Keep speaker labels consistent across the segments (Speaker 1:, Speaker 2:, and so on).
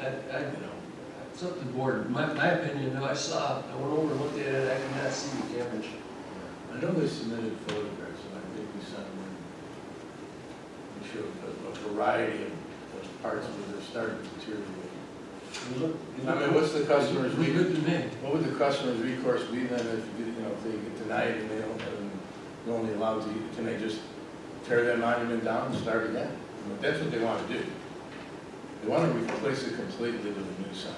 Speaker 1: I, I,
Speaker 2: you know.
Speaker 1: it's up to the board, my, my opinion, though, I saw, I went over and looked at it, I could not see the damage.
Speaker 2: I know they submitted photographs, and I think we sent them, and we showed a- a variety of of parts where they're starting to deteriorate.
Speaker 1: It looked- it
Speaker 2: I mean,
Speaker 1: looked-
Speaker 2: what's the customer's,
Speaker 1: it looked
Speaker 2: re-
Speaker 1: good to me.
Speaker 2: what would the customer's recourse be then if, you you know, if they get denied and they don't, and they're only allowed to, can they just tear that monument down and start again? I mean, That's what they want to do. They want to replace it completely with a new sign.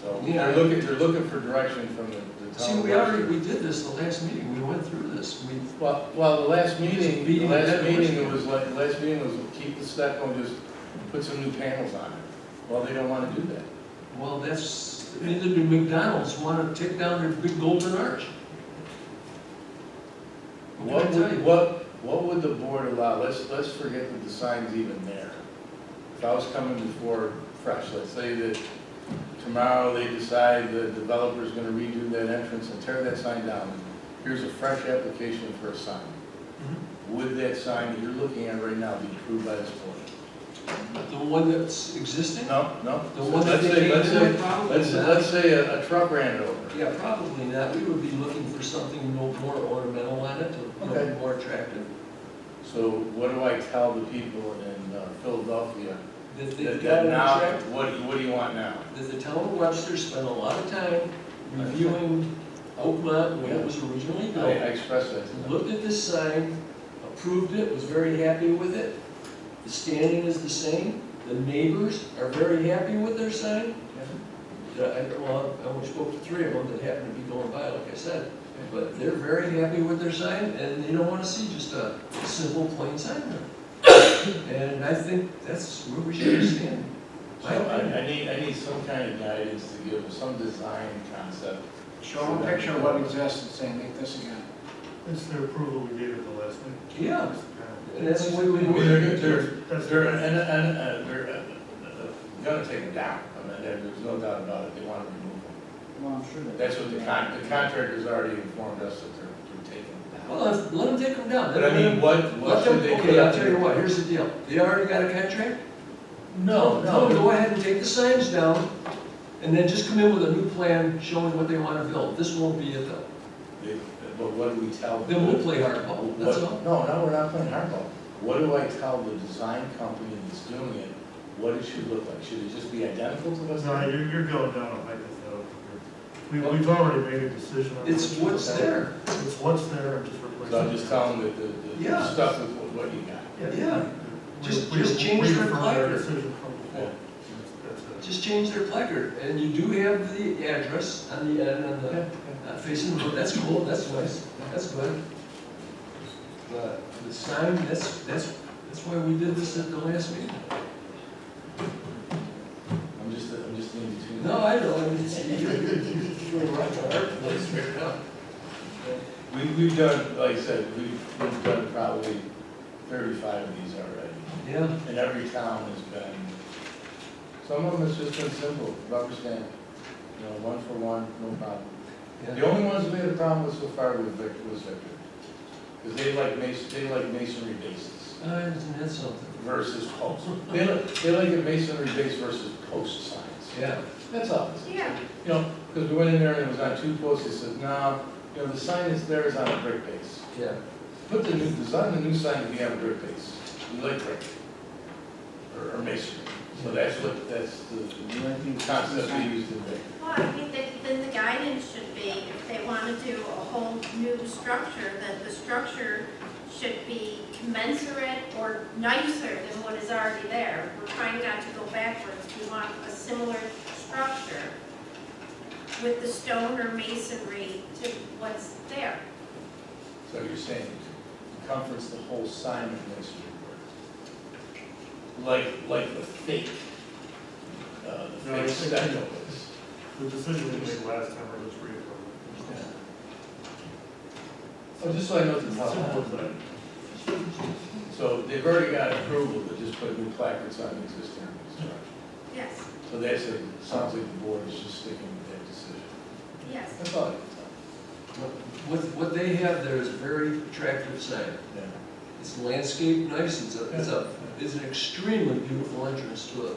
Speaker 2: So
Speaker 1: Yeah.
Speaker 2: they're looking, they're looking for direction from the the town.
Speaker 1: See,
Speaker 2: of
Speaker 1: we already,
Speaker 2: Webster.
Speaker 1: we did this the last meeting, we went through this, we,
Speaker 2: Well, well, the last meeting,
Speaker 1: Beating the
Speaker 2: the last
Speaker 1: dead horse.
Speaker 2: meeting, it was like, the last meeting was keep the step on, just put some new panels on it. Well, they don't wanna do that.
Speaker 1: well, that's, neither did McDonald's wanna take down their big golden arch. What
Speaker 2: What
Speaker 1: can I tell
Speaker 2: would,
Speaker 1: you?
Speaker 2: what, what would the board allow? Let's, let's forget that the sign's even there. If I was coming before fresh, let's say that tomorrow they decide the developer's gonna redo that entrance and tear that sign down. Here's a fresh application for a sign.
Speaker 1: Mm-hmm.
Speaker 2: Would that sign that you're looking at right now be approved by this board?
Speaker 1: But The one that's existing?
Speaker 2: No, no.
Speaker 1: The one that
Speaker 2: Let's
Speaker 1: they
Speaker 2: say-
Speaker 1: came
Speaker 2: let's say-
Speaker 1: in, probably
Speaker 2: Let's,
Speaker 1: not.
Speaker 2: let's say a, a truck ran it over.
Speaker 1: Yeah, probably not, we would be looking for something no more ornamental on it, to you know,
Speaker 2: Okay.
Speaker 1: be more attractive.
Speaker 2: So what do I tell the people in uh, Philadelphia?
Speaker 1: That
Speaker 2: That
Speaker 1: they've
Speaker 2: that
Speaker 1: got an
Speaker 2: now,
Speaker 1: attract-
Speaker 2: what, what do you want now?
Speaker 1: that the town of Webster spent a lot of time reviewing Oakmont when it was originally
Speaker 2: I I
Speaker 1: built.
Speaker 2: expressed that. to them.
Speaker 1: Looked at this sign, approved it, was very happy with it. The standing is the same, the neighbors are very happy with their sign. The- I- Well, I only spoke to three of them that happened to be going by, like I said, but they're very happy with their sign, and they don't wanna see just a simple plain sign there. And I think that's where we should stand.
Speaker 2: So I, I need, I need some kind of guidance to give, some design concept.
Speaker 3: Show them a picture of what exists and say, make this again.
Speaker 4: That's the approval we gave at the last meeting.
Speaker 1: Yeah,
Speaker 4: Yeah.
Speaker 1: and that's the way we.
Speaker 2: I mean, They're, they're,
Speaker 4: That's-
Speaker 2: they're, and, and, and they're uh, uh, gonna take it down. I mean, there- there's no doubt about it. They want to remove it.
Speaker 3: Well, I'm sure that.
Speaker 2: That's what the con, the contractor's already informed us that they're, they're taking it down.
Speaker 1: Well, let- let them take them down.
Speaker 2: But I mean, what, what
Speaker 1: Let
Speaker 2: should
Speaker 1: them,
Speaker 2: they?
Speaker 1: okay, I'll tell you what, here's the deal. They already got a contract? Tell them, go ahead and take the signs down, and then just come in with a new plan showing what they want to build. This won't be it though.
Speaker 2: They- But what do we tell?
Speaker 1: Then we'll
Speaker 2: the-
Speaker 1: play hardball, that's
Speaker 2: what-
Speaker 1: all.
Speaker 2: No, no, we're not playing hardball. What do I tell the design company that's doing it, what it should look like? Should it just be identical to what's
Speaker 4: No,
Speaker 2: there?
Speaker 4: you're, you're going down a hypothetical. We, we've already made a decision. on
Speaker 1: It's
Speaker 4: this.
Speaker 1: what's there.
Speaker 4: It's what's there and just replace it.
Speaker 2: So I'm just telling the, the, the
Speaker 1: Yeah.
Speaker 2: stuff with what what you got.
Speaker 1: Yeah.
Speaker 4: We-
Speaker 1: Just-
Speaker 4: we-
Speaker 1: just change
Speaker 4: we
Speaker 1: the
Speaker 4: affirmed our
Speaker 1: color.
Speaker 4: decision from before. That's it.
Speaker 1: Just change their placard, and you do have the address on the end, on the, uh, facing the road. That's cool, that's nice, that's good. But the sign, that's, that's, that's why we did this at the last meeting.
Speaker 2: I'm just, I'm just in between.
Speaker 1: No, I know, I mean, see, you're, you're right to our place right now.
Speaker 2: We, we've done, like I said, we've, we've done probably thirty-five of these already.
Speaker 1: Yeah,
Speaker 2: And every town has been, some of them has just been simple, rubber stamp, you know, one for one, no problem. The
Speaker 1: yeah.
Speaker 2: only ones we had a problem with so far was Victor, was Victor. Because they like mason, they like masonry bases
Speaker 1: I understand that's something.
Speaker 2: versus posts. They like, they like a masonry base versus post signs.
Speaker 1: Yeah,
Speaker 2: That's all. it is.
Speaker 5: Yeah,
Speaker 2: You know, because we went in there and it was on two posts, they said, no, you know, the sign is there is on a brick base.
Speaker 1: yeah.
Speaker 2: Put the new, design the new sign to be on a brick base. We like brick. Or, or masonry. So that's what, that's the
Speaker 3: You might be-
Speaker 2: concept we used in Victor.
Speaker 5: well, I think that then the guidance should be, if they want to do a whole new structure, that the structure should be commensurate or nicer than what is already there. We're trying not to go backwards, we want a similar structure with the stone or masonry to what's there.
Speaker 2: So you're saying to conference the whole sign of masonry work? Like, like the fake, uh, the
Speaker 4: No,
Speaker 2: fake
Speaker 4: it's-
Speaker 2: stucco
Speaker 4: The decision we made last time, we're just reaffirming.
Speaker 2: Oh, just so I know the
Speaker 4: Simple
Speaker 2: top.
Speaker 4: as that.
Speaker 2: So they've already got approval to just put new placards on existing structure.
Speaker 5: Yes,
Speaker 2: So that's, it sounds like the board is just sticking with that decision.
Speaker 5: yes.
Speaker 2: That's all I can
Speaker 1: What, what they have there is a very attractive sign.
Speaker 2: tell.
Speaker 1: It's landscaped nice, it's a, it's a, it's an extremely beautiful entrance to a